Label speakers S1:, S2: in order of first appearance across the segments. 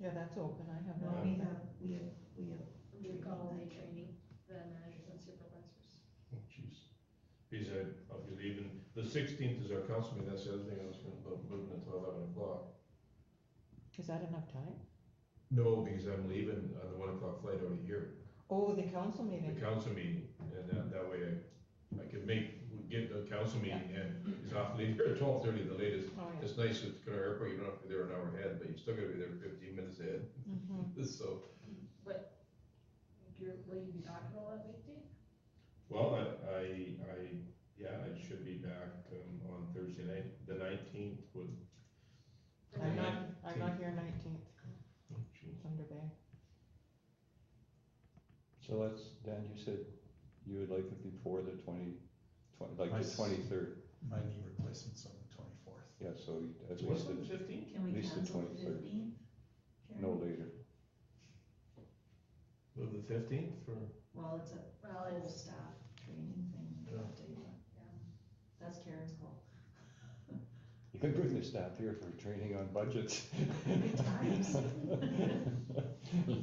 S1: Yeah, that's open, I have
S2: No,
S1: that.
S2: we have, we have, we have.
S3: recall day training, the managers and supervisors.
S2: Oh, Jeez. These are, obviously even, the sixteenth is our council meeting, that's the other thing I was gonna, about moving it to eleven o'clock.
S1: Is that enough time?
S2: No, because I'm leaving on the one o'clock flight out of here,
S1: Oh, the council
S2: the
S1: meeting,
S2: council meeting, and that, that way I, I could make, get the council meeting in, it's off leave here at twelve thirty the latest.
S1: oh, yeah.
S2: It's nice at Canary Airport, you don't have to be there an hour ahead, but you still gotta be there fifteen minutes ahead,
S1: Mhm.
S2: so.
S3: You're, will you be back on all that weekday?
S2: Well, I, I, I- yeah, I should be back, um, on Thursday night, the nineteenth would.
S1: I'm not, I'm not here nineteenth,
S2: Oh, jeez.
S1: Thunder Bay.
S4: So let's, Dan, you said you would like it before the twenty, twenty, like
S5: I
S4: the
S5: s-
S4: twenty-third,
S5: my knee replacement's on the twenty-fourth.
S4: yeah, so you- at least
S2: What's it, the
S4: it's
S2: fifteenth? fifteenth? Can
S4: we Least the cancel the 23rd. no later.
S2: Move the fifteenth for,
S3: Well, it's a, well,
S2: whole
S3: it's staff.
S2: training
S3: thing.
S2: Yeah.
S3: That's Karen's call.
S4: You could bring the staff here for training on budgets.
S3: Good times.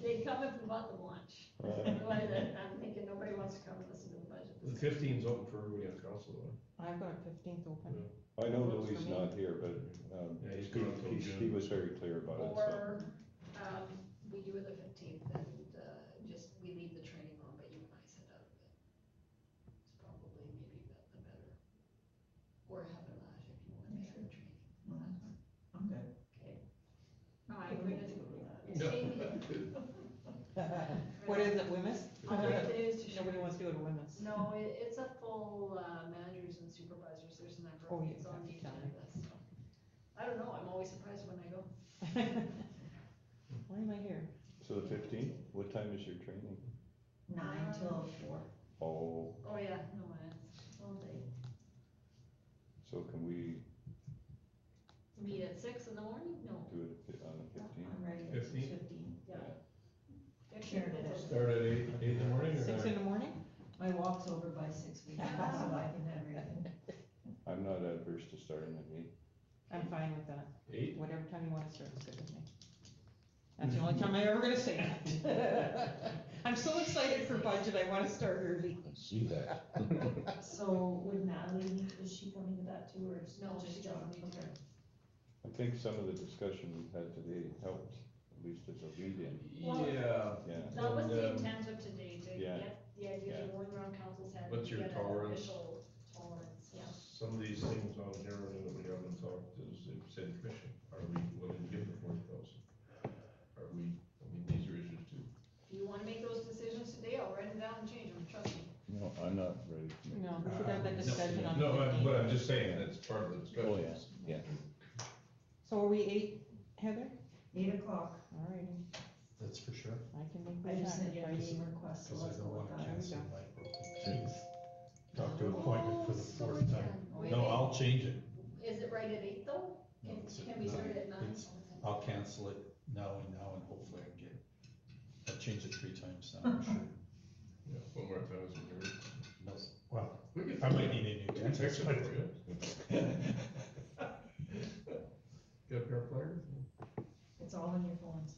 S3: They come if we want them lunch. Otherwise, I- I'm thinking nobody wants to come and listen to the
S2: the
S3: budget.
S2: fifteenth is open for everybody on council, though.
S1: I've got fifteenth open.
S4: I know
S1: Works for
S4: Louis
S1: me.
S4: not here, but, um,
S2: Yeah, he's gone until
S4: he, he- he
S2: June.
S4: was very clear about it, so.
S3: Or, um, we do it the fifteenth and, uh, just, we leave the training on, but you and I set up. It's probably maybe the, the better. Or have it last if you want to have the training.
S2: I'm good.
S3: Okay. No, I agree with you.
S1: What is it, Wemyss?
S3: All I have to do is to show.
S1: Nobody wants to go to Wemyss.
S3: No, it, it's a full, uh, managers and supervisors, there's a number
S1: Oh,
S3: of
S1: you
S3: things on
S1: have
S3: the
S1: to tell
S3: agenda, so. I don't know, I'm always surprised when I go.
S1: Why am I here?
S4: So the fifteenth, what time is your training?
S3: Nine till
S5: four.
S4: Oh,
S3: Oh, yeah, no, it's all day.
S4: so can we
S3: Meet at six in the morning? No.
S4: do it fi- on the fifteenth?
S5: ready.
S2: Fifteenth?
S3: Yeah. It's
S5: Sure.
S3: it's a-
S2: Start at eight, eight in the morning or?
S1: Six in the morning?
S5: My walk's over by six weeks,
S3: so
S5: I can have everything.
S4: I'm not adverse to starting at eight.
S1: I'm fine with that.
S2: Eight?
S1: Whatever time you wanna start, it's good with me. That's the only time I'm ever gonna say that. I'm so excited for budget, I wanna start early.
S4: See that.
S5: So would Natalie, is she coming to that too, or is?
S3: No, she
S5: just John?
S3: doesn't need to.
S5: Okay.
S4: I think some of the discussion we've had today helped, at least as a lead-in,
S3: Well-
S2: Yeah,
S4: yeah.
S3: That was the
S2: And, um,
S3: intent of today, to
S4: yeah,
S3: get the idea
S4: yeah.
S3: of going around council's head.
S2: What's
S3: and
S2: your
S3: get an
S2: tolerance?
S3: Official tolerance, yeah.
S2: some of these things on here that we haven't talked to the city commission, are we willing to give the forty thousand? Are we, I mean, these are issues too.
S3: If you wanna make those decisions today, I'll write them down and change them, trust me.
S4: No, I'm not ready. to make-
S1: No, we should have that discussion on
S2: Uh, No, but,
S1: the
S2: but
S1: 15th.
S2: I'm just saying, that's part of the discussion.
S4: Oh, yeah, yeah.
S1: So are we eight, Heather?
S6: Eight o'clock,
S1: Alrighty,
S5: That's for sure,
S1: I can make
S6: I
S1: the
S6: just sent you a meeting
S1: time.
S6: request, so
S5: cause I
S6: let's
S5: don't
S6: go
S5: wanna
S6: with that.
S5: cancel
S1: Okay.
S5: my broken tooth. Doctor appointment for
S3: Oh,
S5: the
S3: sorry,
S5: fourth time.
S3: Ken. Wait,
S5: No, I'll change it,
S3: Is it right at eight though?
S5: No,
S3: Can,
S5: it's
S3: can
S5: at
S3: we start
S5: nine.
S3: it at nine?
S5: It's- I'll cancel it now and now, and hopefully I can get, I'll change it three times now, I'm sure.
S2: Yeah, One more time, it's in here.
S5: No, well,
S2: We can-
S5: I might need a new
S2: We can
S5: dentist.
S2: fix it for
S5: but-
S2: you. You got a pair of pliers?
S6: It's all on your phones.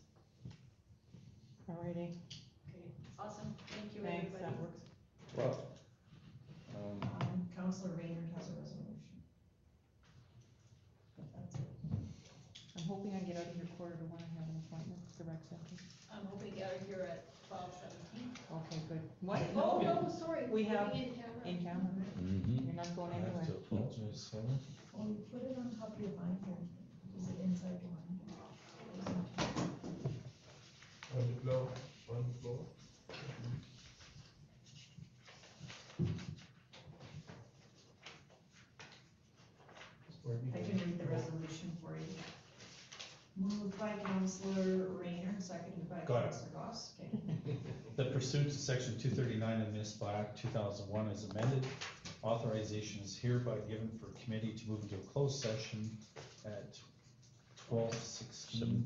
S1: Alrighty,
S3: Okay, awesome, thank you
S1: thanks,
S3: everybody.
S1: that works.
S4: Well, um,
S6: Um, Counselor Raynard has a resolution. But that's it.
S1: I'm hoping I get out of here quarter to one, I have an appointment with the rec center.
S3: I'm hoping you're here at twelve seventeen.
S1: Okay, good. What?
S3: Oh, no, sorry.
S1: We have-
S3: In camera.
S1: In camera,
S6: Um,
S1: you're not going
S5: I have
S1: anywhere.
S5: to apologize, Heather.
S6: Well, you put it on top of your binder, is it inside your binder?
S2: On the floor, on the floor.
S6: I can read the resolution for you. Moved by Counselor Raynard, seconded by
S5: Got it.
S6: Counselor Goss, okay.
S5: The pursuant to section two thirty-nine of municipal act two thousand one as amended, authorization is hereby given for committee to move into a closed session at twelve sixteen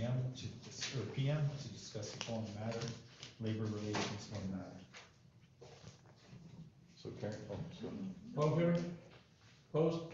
S5: AM to, dis- or PM to discuss the following matter, labor relations uh, one matter.
S4: so Karen, oh, so
S2: All in favor? Opposed?